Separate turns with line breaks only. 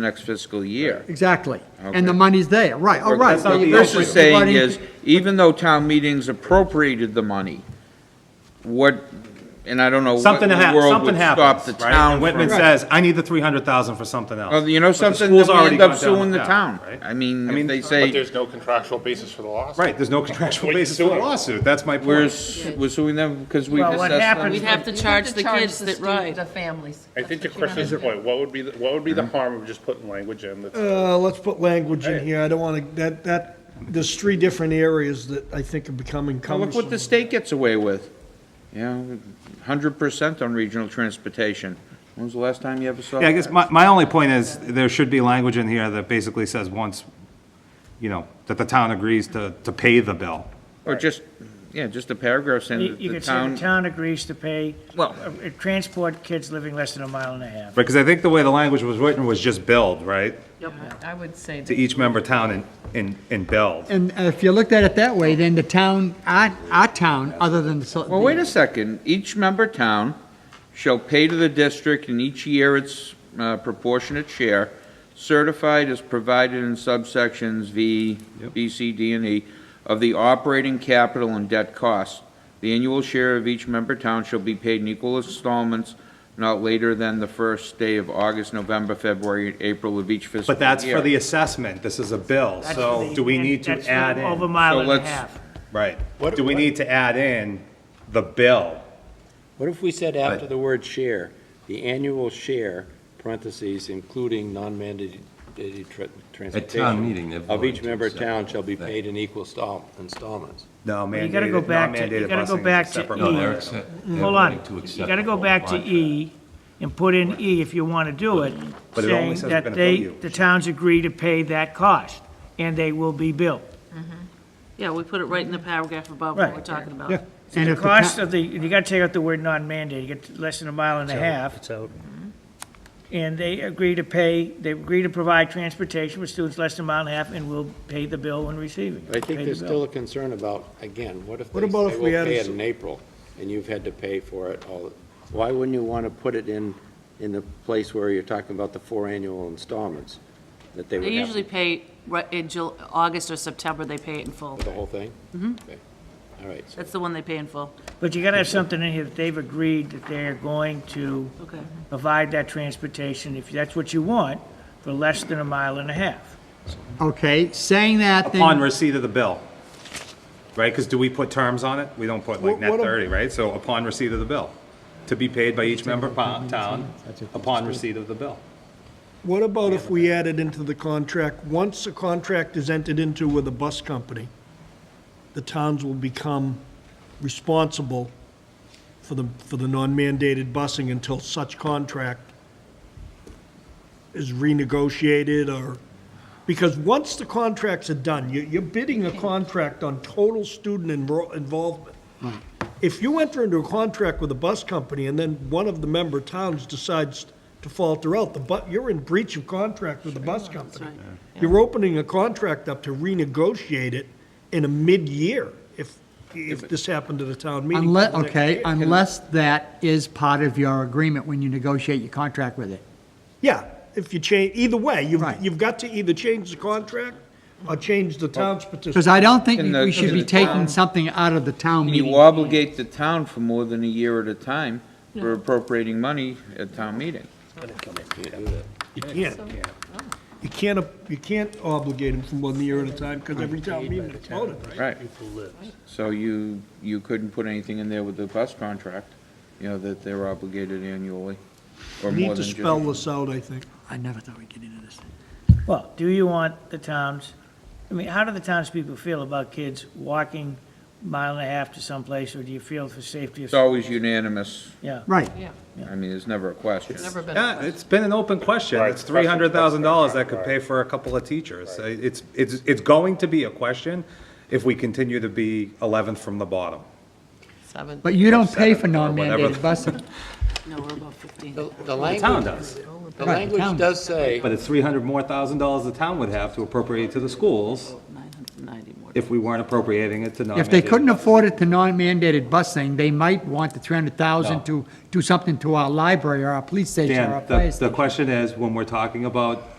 the next fiscal year.
Exactly. And the
Okay.
money's there, right, all right.
That's not
Well,
the
you
What
go
this
issue.
for
is saying
everybody-
is, even though town meetings appropriated the money, what, and I don't know what in
Something
the
happened,
world
something
would stop the
happens, right?
town
And Whitman
from.
says, I need the three hundred thousand for something
Well,
else.
You know
But the
something,
school's
then we
already
end up
gone down
suing the
path,
town.
right?
I mean, if
mean,
they
But
say,
there's no contractual basis for the loss.
Right, there's no contractual
What are you
basis for a
suing?
lawsuit, that's my
we're,
point.
s- we're suing them because we
Well, what
assessed
happens-
them.
We'd have to
You'd
charge the kids that
stu-
ride.
The families.
I think to Chris's point, what would be, the- what would be the harm of just putting language in that's
Uh, let's put language in here, I don't wanna, that, that, there's three different areas that I think are becoming
Now, Look what the
cumbersome.
state gets away with, you know, hundred percent on regional transportation. When was the last time you ever saw?
Yeah, I guess
that?
my, my only point is, there should be language in here that basically says once, you know, that the town agrees to, to pay the bill.
Or just, yeah, just a paragraph saying
You
that
you
the
could say the
town,
town agrees to pay,
Well-
uh, transport kids living less than a mile and a half.
Right, because I think the way the language was written was just build, right?
I would say
To
that.
each member town and, and, and build.
And if you looked at it that way, then the town, our, our town, other than the. so-
well, wait a second, each member town shall pay to the district in each year its uh, proportionate share, certified as provided in subsections V, B, C, D, and E, of the operating capital and debt costs. The annual share of each member town shall be paid in equal installments not later than the first day of August, November, February, and April of each fiscal year.
But that's for the assessment, this is a bill,
That's
so
the-
do we
and
need to
that's
add
Over a
in?
mile
So
and a
let's-
half.
Right,
What-
do we need to add in the bill?
What if we said after the word share, the annual share, parentheses, including non-mandated tra- transportation?
meeting, they've
Of each
voted to
member
accept
town shall be
that.
paid in equal stall- installments.
No, mandated,
You gotta go back to, you
non-mandated
gotta go
busing is a
back to
separate
E.
one.
they're accept- they're
Hold
willing to
on, you
accept
gotta
the
go
whole
back to
contract.
E and put in E if you wanna do it,
But it only
saying
says we're
that
gonna
they,
bill you.
the towns agree to pay that cost, and they will be billed.
Yeah, we put it right in the paragraph above what we're
Right.
talking about.
And the
if the
cost
town-
of the, you gotta take out the word non-mandated, you get less than a mile and a half. And they agree to pay, they agree to provide transportation for students less than a mile and a half and will pay the bill when receiving it.
But I
Pay
think
the
there's
bill.
still a concern about, again, what if they
What
say
about
we'll
if we added
pay it
some-
in April, and you've had to pay for it all? Why wouldn't you want to put it in, in the place where you're talking about the four annual installments? That they would
They
have.
usually pay, right, in Jul, August or September, they pay it in full.
The whole thing? Mm-hmm. All right, so
That's the one they pay in full.
But you gotta have something in here that they've agreed that they're going to
Okay.
provide that transportation, if that's what you want, for less than a mile and a half.
Okay, saying that, then.
Upon receipt of the bill, right? Because do we put terms on it? We don't put like
What-
net
what ab-
thirty, right? So upon receipt of the bill, to be paid by each member po- town upon receipt of the bill.
What about if we added into the contract, once a contract is entered into with a bus company, the towns will become responsible for the, for the non-mandated busing until such contract is renegotiated or, because once the contracts are done, you, you're bidding a contract on total student enroll, involvement. If you enter into a contract with a bus company and then one of the member towns decides to falter out, the bu, you're in breach of contract with the bus company. You're opening a contract up to renegotiate it in a mid-year if, if this happened at a town meeting.
Unless, okay, unless that is part of your agreement when you negotiate your contract with it.
Yeah, if you change, either way, you've,
Right.
you've got to either change the contract or change the town's participation.
Because I don't think
In the-
we should be
in the town-
taking something out of the town
And
meeting.
You obligate the town for more than a year at a time for appropriating money at town meeting.
You can't. You can't, you can't obligate them for one year at a time because every town meeting is voted, right?
Right. So you, you couldn't put anything in there with the bus contract, you know, that they're obligated annually, or more
Need
than
to
just-
spell this out, I think.
I never thought we'd get into this.
Well, do you want the towns, I mean, how do the townspeople feel about kids walking mile and a half to someplace, or do you feel for safety of?
It's always unanimous,
Yeah,
Right,
I mean, there's never a question.
Never been.
Yeah, it's been an open question.
Right,
It's three hundred thousand dollars that could pay for a couple of teachers. Uh, It's, it's, it's going to be a question if we continue to be eleventh from the bottom.
Seven,
but you don't pay for
Seven or whatever.
non-mandated busing.
no, we're about 15.
the- the
The town
language,
does,
the
Right, the town
language does say.
but it's three hundred more thousand dollars the town would have to appropriate to the schools
990 more.
if we weren't appropriating it to non
If they couldn't afford it to non-mandated busing, they might want the three hundred
No.
thousand to do something to our library or our police station or our
Dan, the,
place.
the question is, when we're talking about